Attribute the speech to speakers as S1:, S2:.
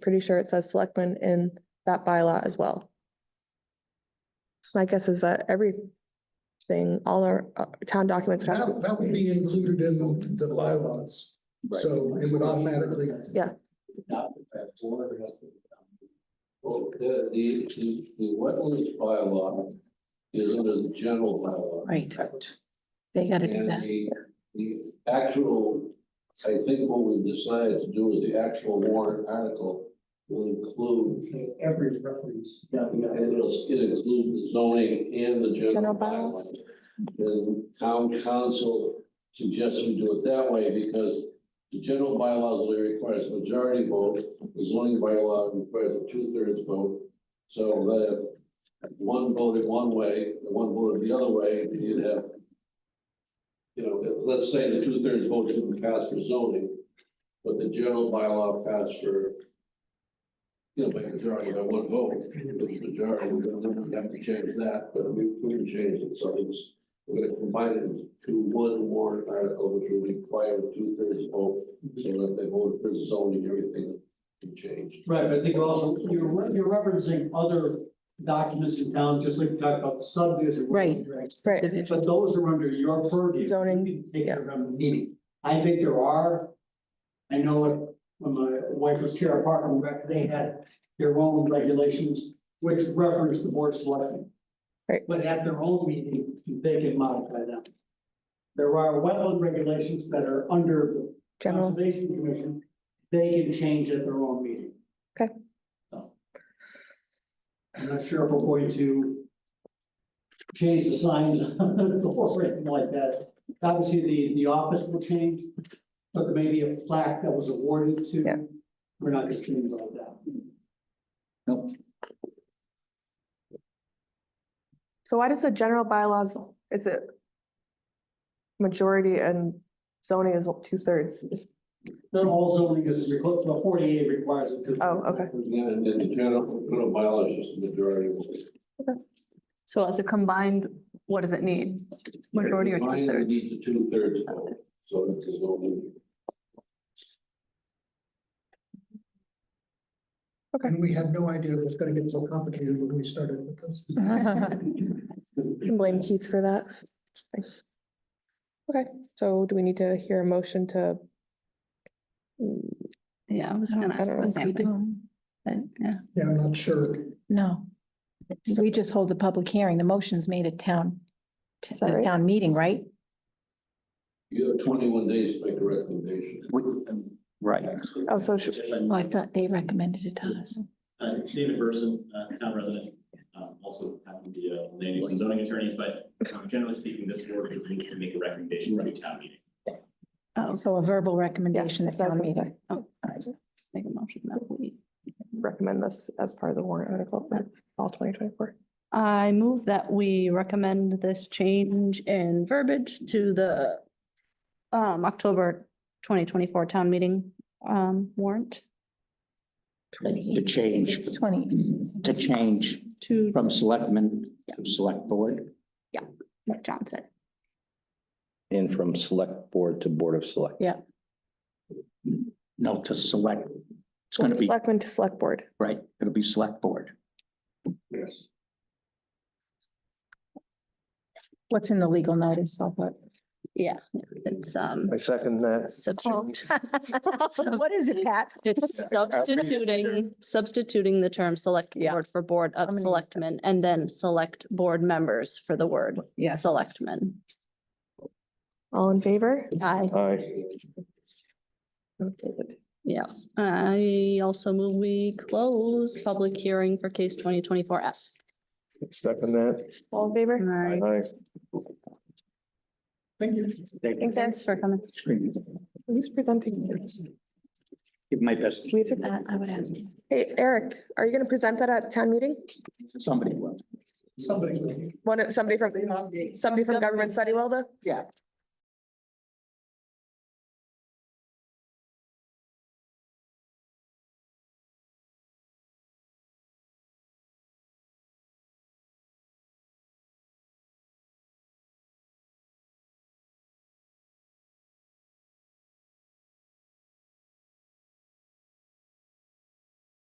S1: pretty sure it says selectmen in that bylaw as well. My guess is that everything, all our uh, town documents have,
S2: That, that would be included in the bylaws, so it would automatically.
S1: Yeah.
S3: Well, the, the, the the wetlands bylaw is under the general bylaw.
S4: Right. They gotta do
S3: And
S4: that.
S3: the, the actual, I think what we decided to do is the actual warrant article will include,
S2: Every reference.
S3: and it'll, it includes the zoning and the
S1: General
S3: general
S1: bylaws.
S3: bylaws. And town council suggests we do it that way because the general bylaws only requires a majority vote, the zoning bylaw requires a two-thirds vote. So that if one voted one way, and one voted the other way, you'd have you know, if- let's say the two-thirds vote didn't pass for zoning, but the general bylaw passed for, you know, by majority, by one vote, the majority, we're gonna we'd have to change that, but we, we can change it, so it's, we're gonna combine it into one warrant article, which will require a two-thirds vote, so that they vote for zoning, everything can change.
S5: Right, but I think also, you're, re- you're referencing other documents in town, just like you talked about the subdivision.
S4: Right.
S1: right,
S4: Individual.
S5: But those are under your purview.
S1: Zoning,
S5: You can Take
S1: yeah.
S5: care of them meeting. I think there are, I know it, when my wife was chair of Park and Rec, they had their own regulations which reference the board selecting.
S1: Right.
S5: But at their own meeting, they can modify them. There are wetland regulations that are under the
S1: general,
S5: Conservation Commission, they can change at their own meeting.
S1: Okay.
S5: So. I'm not sure if we're going to change the signs or anything like that. Obviously, the, the office will change, but there may be a plaque that was awarded
S1: Yeah.
S5: to, we're not gonna change all that.
S1: so why does the general bylaws, is it? Majority and zoning is two thirds,
S5: Not all zoning is, requ- the forty-eight requires it. to-
S1: Oh, okay.
S3: Yeah, and then the general, general bylaw is just the majority. vote.
S6: So as a combined, what does it need? Majority or
S3: Combine
S6: two
S3: it
S6: thirds?
S3: needs a two-thirds vote, so that the zoning.
S2: And we had no idea it was gonna get so complicated when we started with this.
S1: can blame Keith for that. Okay, so do we need to hear a motion to? Mm,
S6: Yeah, I was gonna ask the same thing, but yeah.
S2: Yeah, I'm not sure.
S4: No. We just hold the public hearing. The motion's made at town, to
S1: that
S4: the
S1: right?
S4: town meeting, right?
S3: You have twenty-one days to make a recommendation.
S7: Right.
S1: Oh, so should-
S4: Oh, I thought they recommended it to us.
S8: Uh, David Burson, uh, town resident, um, also happened to be a land use and zoning attorney, but um, generally speaking, this board would need to make a recommendation to a town meeting.
S6: Oh, so
S4: So a verbal
S1: yeah,
S4: recommendation at
S1: so I was
S4: town
S1: gonna
S4: meeting.
S1: say,
S6: make a motion that we.
S1: Recommend this as part of the warrant article for all twenty twenty-four.
S6: I move that we recommend this change in verbiage to the um, October twenty twenty-four town meeting um, warrant
S7: To change,
S4: It's twenty.
S7: to change
S6: to
S7: from selectmen to select board
S6: what John said.
S9: And from select board to board of select.
S7: no, to select. It's gonna be,
S1: Selectmen to select board.
S7: right, it'll be select board.
S3: Yes.
S4: What's in the legal notice? I'll put.
S6: Yeah, it's um.
S9: I second that.
S6: substitute-
S4: Oh. What is it, Pat?
S6: It's substituting, substituting the term select
S4: Yeah.
S6: board for board
S4: I'm
S6: of
S4: gonna use that.
S6: selectmen and then select board members for the word
S4: Yes.
S6: selectmen. Uh,
S1: All in favor?
S6: I,
S9: Aye.
S1: Okay, good.
S6: yeah, I also move we close public hearing for case twenty twenty-four F.
S9: Second that.
S1: All in favor?
S6: Right.
S9: Aye.
S2: Thank you.
S1: Thanks, Eric.
S6: Thanks for coming.
S1: Who's presenting?
S7: Give my best,
S1: We have to-
S4: I I would ask.
S1: Hey, Eric, are you gonna present that at town meeting?
S7: somebody will.
S2: Somebody.
S1: One, of- somebody from, somebody from government study will though?
S7: Yeah.